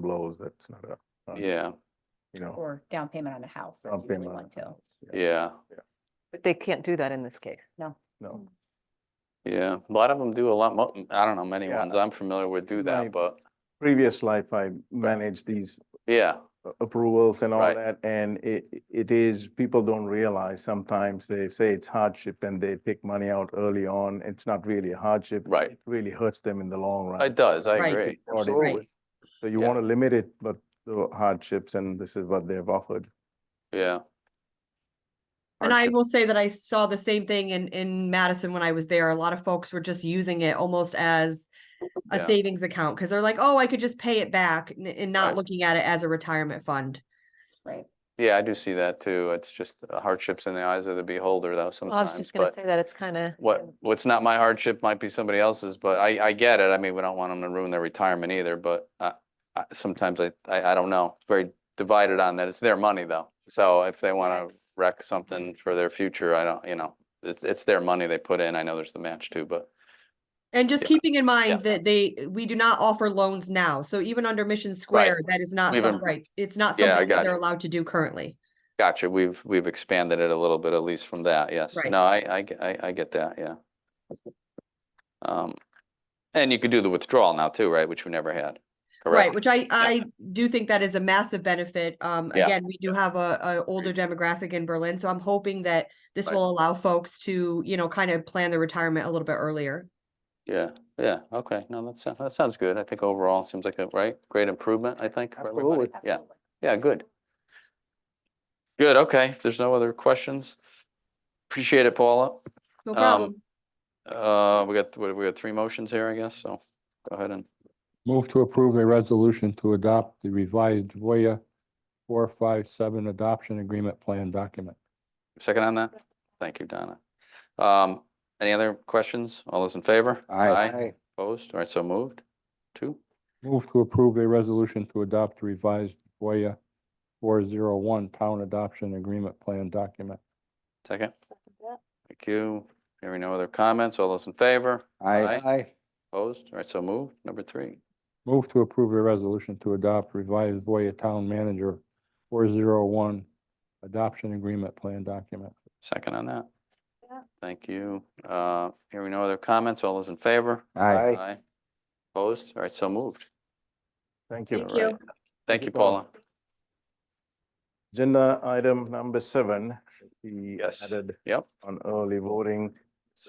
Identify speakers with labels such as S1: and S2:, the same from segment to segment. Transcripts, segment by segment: S1: blows, that's not a. a-
S2: Yeah,
S1: You know.
S3: or down payment on a house. that's
S1: down
S3: usually
S1: payment on
S3: one
S1: a
S3: too.
S1: house,
S2: yeah,
S4: But they can't do that in this case.
S3: No,
S1: No,
S2: yeah. A lot of them do a lot, mo- mm, I don't know, many
S1: Yeah.
S2: ones I'm familiar with do
S1: Right.
S2: that, but
S1: previous life, I managed these
S2: yeah,
S1: a- approvals and all
S2: Right.
S1: that, and it, it is, people don't realize sometimes they say it's hardship and they take money out early on, it's not really a hardship.
S2: Right.
S1: It Really hurts them in the long run.
S2: it does, I
S5: Right.
S2: agree.
S1: Or they-
S5: Right.
S1: So you
S2: Yeah.
S1: want to limit it, but the hardships, and this is what they've offered.
S2: Yeah.
S5: And I
S2: Hardship.
S5: will say that I saw the same thing in, in Madison when I was there. A lot of folks were just using it almost as a
S2: Yeah.
S5: savings account because they're like, oh, I could just pay it back n- and not
S2: Right.
S5: looking at it as a retirement fund.
S3: right.
S2: Yeah, I do see that too. It's just uh, hardships in the eyes of the beholder though
S4: Well, Oh, I was
S2: sometimes,
S4: just gonna
S2: but
S4: say that it's kind of.
S2: what, what's not my hardship might be somebody else's, but I, I get it. I mean, we don't want them to ruin their retirement either, but I, I, sometimes I, I, I don't know. It's very divided on that. It's their money though. So if they want to
S3: Yes.
S2: wreck something for their future, I don't, you know, it's, it's their money they put in. I know there's the match too, but
S5: And just
S2: Yeah.
S5: keeping in mind that they, we do not offer loans now. So even under Mission Square, that is not
S2: We've
S5: some,
S2: im-
S5: right. It's not
S2: Yeah, I
S5: something that
S2: got
S5: they're
S2: you.
S5: allowed to do currently.
S2: gotcha. We've, we've expanded it a little bit, at least from that. Yes.
S5: Right.
S2: No, I, I, get- I, I get that. Yeah. Um, and you could do the withdrawal now too, right? Which we never had.
S5: Right,
S2: Correct?
S5: which I, I do think that is a massive benefit. Um,
S2: Yeah.
S5: again, we do have a, a older demographic in Berlin, so I'm hoping that this
S2: Right.
S5: will allow folks to, you know, kind of plan their retirement a little bit earlier.
S2: Yeah, yeah, okay, no, that sounds, that sounds good. I think overall, it seems like a, right, great improvement, I think. for everybody.
S1: Absolutely.
S2: Yeah,
S3: Absolutely.
S2: yeah, good. Good, okay, if there's no other questions, appreciate it, Paula.
S5: No
S2: Um,
S5: problem.
S2: Uh, we got, what, we got three motions here, I guess, so go ahead and,
S6: Move to approve a resolution to adopt the revised Voya four five seven adoption agreement plan document.
S2: second on that? Thank you, Donna. Um, any other questions? All those in favor? Opposed, all right, so moved, two?
S6: Move to approve a resolution to adopt the revised Voya four zero one town adoption agreement plan document.
S2: Second.
S3: Second that.
S2: thank you. Hearing no other comments, all those in favor? Aye.
S6: Aye.
S2: Opposed, all right, so moved, number three.
S6: Move to approve a resolution to adopt revised Voya town manager four zero one adoption agreement plan document.
S2: Second on that?
S3: Yeah.
S2: Thank you. Uh, hearing no other comments, all those in favor? Opposed? All right, so moved.
S1: Thank you.
S5: Thank
S2: All right.
S5: you.
S2: Thank you, Paula.
S1: Agenda item number seven, the
S2: Yes.
S1: added
S2: Yep.
S1: on early voting.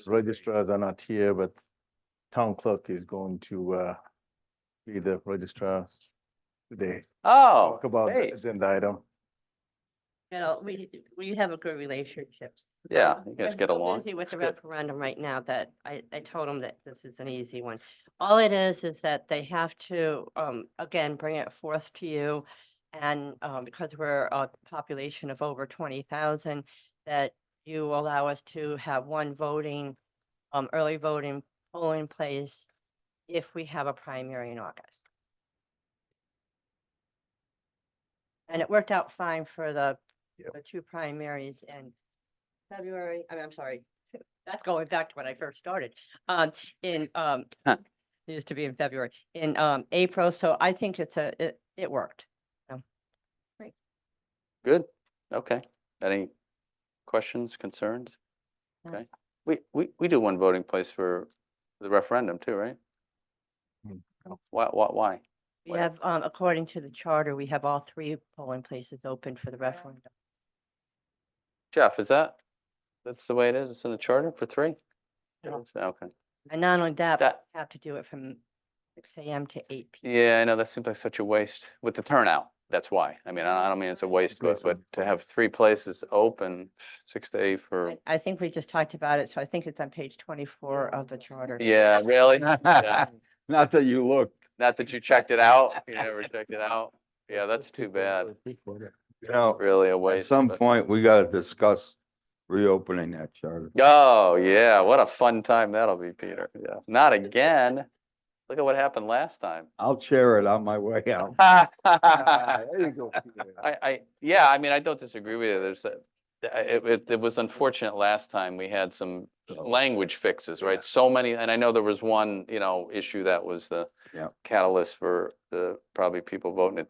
S1: Registrars are not here, but town clerk is going to uh, be the registrar today.
S2: Oh,
S1: Talk about
S2: hey,
S1: the agenda item.
S7: You know, we, we have a good relationship.
S2: yeah,
S7: Um,
S2: you guys
S7: I'm
S2: get
S7: so
S2: along.
S7: Busy with
S2: That's
S7: the
S2: good.
S7: referendum right now that I, I told them that this is an easy one. All it is, is that they have to, um, again, bring it forth to you. And, um, because we're a population of over twenty thousand, that you allow us to have one voting, um, early voting polling place if we have a primary in August. And it worked out fine for the,
S1: Yep.
S7: the two primaries in February, I mean, I'm sorry, that's going back to when I first started, um, in, um,
S2: Huh.
S7: it used to be in February, in, um, April, so I think it's a, it, it worked.
S2: Good. Okay. Any questions, concerns?
S7: No.
S2: Okay. We, we, we do one voting place for the referendum too, right?
S1: Hmm.
S2: Why, why, why?
S7: We
S2: What-
S7: have, um, according to the charter, we have all three polling places open for the referendum.
S2: Jeff, is that, that's the way it is? It's in the charter for three?
S7: No.
S2: It is? Okay.
S7: And not only that, but
S2: That-
S7: we have to do it from six AM to eight PM.
S2: Yeah, I know, that seems like such a waste with the turnout. That's why. I mean, I I don't mean it's a waste, but,
S1: Agreed.
S2: but to have three places open, six to eight for,
S7: I- I think we just talked about it, so I think it's on page twenty-four of the charter.
S2: yeah, really? Yeah.
S6: Not that you looked.
S2: Not that you checked it out, you never checked it out. Yeah, that's too bad.
S8: You know,
S2: Really a
S8: at
S2: waste.
S8: Oh, some
S2: but-
S8: point, we gotta discuss reopening that charter.
S2: Oh, yeah, what a fun time that'll be, Peter. Yeah, not again. Look at what happened last time.
S8: I'll chair it on my way out. Ah, There you go, Peter.
S2: I, I, yeah, I mean, I don't disagree with you. There's, a- th- I- it, it, it was unfortunate last time. We had some
S8: So,
S2: language fixes, right? So many, and I know there was one, you know, issue that was the
S8: Yep.
S2: catalyst for the, probably people voting it down.